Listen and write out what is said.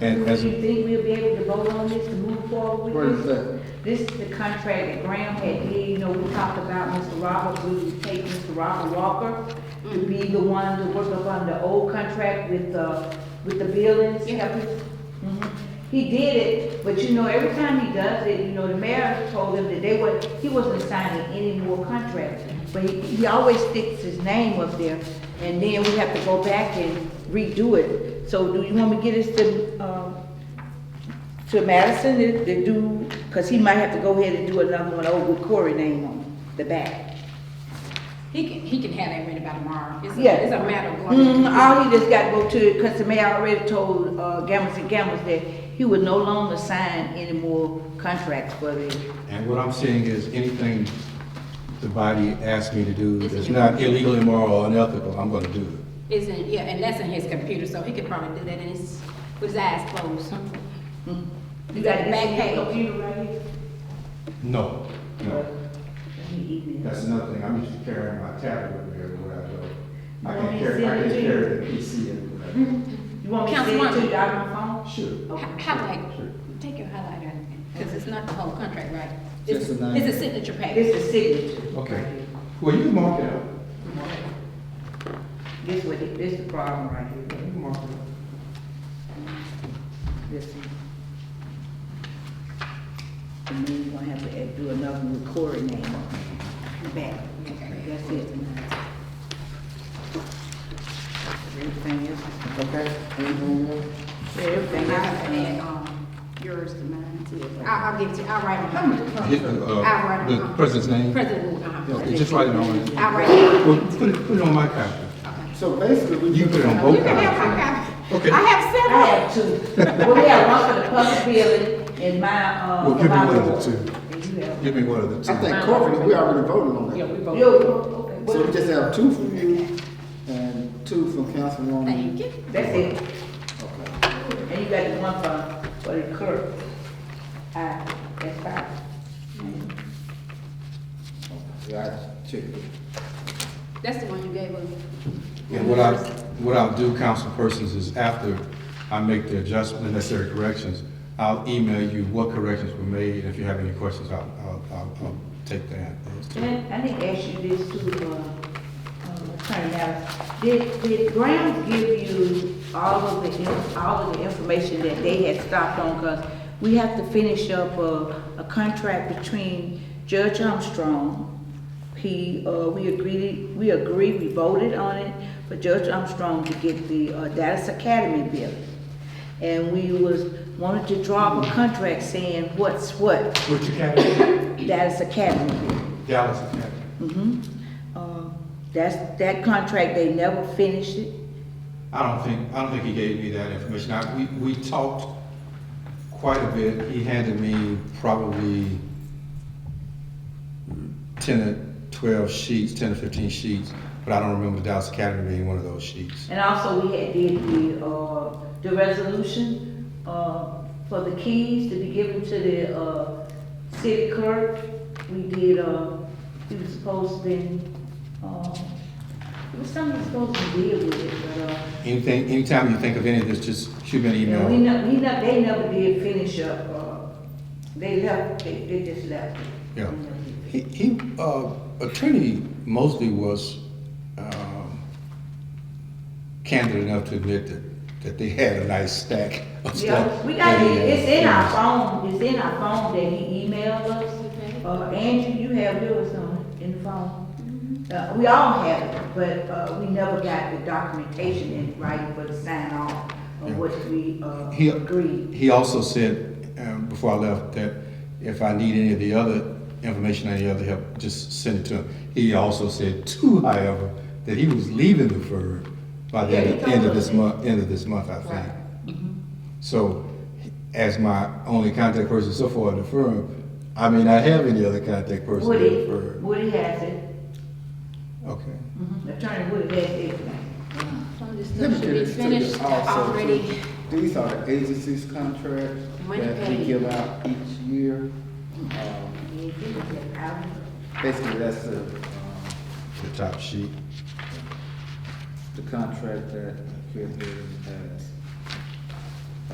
And Do as you a, think we'll be able to vote on this to move forward What with is this? This is the contract that Graham had did, you know, we talked about Mr. Robert, we would take Mr. Robert Walker to be the one to work upon the old contract with the, with the buildings. Yeah. Mhm. He did it, but you know, every time he does it, you know, the mayor told him that they were, he wasn't signing any more contracts. But he, he always sticks his name up there, and then we have to go back and redo it. So do you want me to get us to, um, to Madison to, to do, cause he might have to go ahead and do another one over with Corey name on the back. He can, he can have that ready by tomorrow. It's Yeah. a, it's a matter of going. Mm, to- all he just got to go to, cause the mayor already told, uh, Gambles and Gambles that he would no longer sign any more contracts for the, and what I'm saying is anything the body asks me to do It's that's illegal. not illegal, immoral, or unethical, I'm gonna do it. It's in, yeah, and that's in his computer, so he could probably do that in his, with his eyes closed. you got the Back back page. mm-hmm. computer right here? No, no. He emailed. That's another thing, I'm used to carrying my tablet with me everywhere I go. I Well, can't he carry, I sent it can't to you. carry the PC everywhere. You want me to send it to Councilwoman. you out of my phone? Sure. Hi- Sure. Highlight, take your highlighter, because it's not the whole contract, right? It's, Just a nine. it's a signature page. This is signature. Okay. right here. Well, you mark it up. This what, it- this the problem right here. You mark it. This one. And then you're gonna have to add- do another with Corey name on it. Back, that's it. Everything else, Okay, anything else? is- everything And I have to add, else. um, yours to mine too. I, I'll give it to you, I'll write it Oh, down. Hit the, I'll write uh, it the down. president's name. President, uh-huh. Yeah, Just write it on it. I'll write it down. Well, put it, put it on my copy. So basically, we. You put it on You both can have copies. my copy. Okay. I have I several. have two. Well, we have one for the public building and my, uh. Well, give me my one of the board. two. And you have. Give me one of the two. I think corporate, we already voted on Yeah, that. we You, both. okay. So we just have two from you and two from Councilwoman. Thank you. That's it. Okay. And you got the one for, for the clerk. Uh, that's fine. Yeah, I checked it. That's the one you gave us. And what I, what I'll do, councilpersons, is after I make the adjustment, the necessary corrections, I'll email you what corrections were made, and if you have any questions, I'll, I'll, I'll, I'll take that. And I I didn't ask you this too, uh, um, Attorney Allen. Did, did Graham give you all of the, in- all of the information that they had stopped on? Cause we have to finish up a, a contract between Judge Armstrong. He, uh, we agreed, we agreed, we voted on it for Judge Armstrong to get the, uh, Dallas Academy building. And we was, wanted to draw up a contract saying what's what, Which academy? Dallas Academy building. Dallas Academy. Mm-hmm. Uh, That's, that contract, they never finished it. I don't think, I don't think he gave me that information. I, we, we talked quite a bit. He handed me probably ten or twelve sheets, ten or fifteen sheets, but I don't remember Dallas Academy being one of those sheets. And also, we had did the, uh, the resolution, uh, for the keys to be given to the, uh, city clerk. We did, uh, he was supposed to be, uh, it was something he was supposed to deal with it, but, uh, Anything, anytime you think of any of this, just shoot me an and we email. never, we never, they never did finish up, uh, they left, they, they just left. it. Yeah. We never did. He, he, uh, Attorney Mosley was, um, candid enough to admit that, that they had a nice stack of Yeah, stuff. we got, that he it. had it's in our finished. phone, it's in our phone that he emailed us. Uh, Andrew, you have yours on, in the phone. Uh, we all have it, but, uh, we never got the documentation in writing for the sign off Yeah. of what we, uh, He- agreed. He also said, um, before I left, that if I need any of the other information, any other help, just send it to him. He also said too, however, that he was leaving the firm by the Yeah, he end of- told end of us this that. month, end of this month, I think. So, as my only contact person so far in the firm, I may not have any other contact person in the Woody, firm. Woody has it, Okay. Mhm. Attorney Woody has everything. So this Let me stuff should get be this to you finished also. already. too. These are the agencies contracts Money that we paid. give out each year. Um, Basically, that's the, um, The top sheet. the contract that appeared here in the past.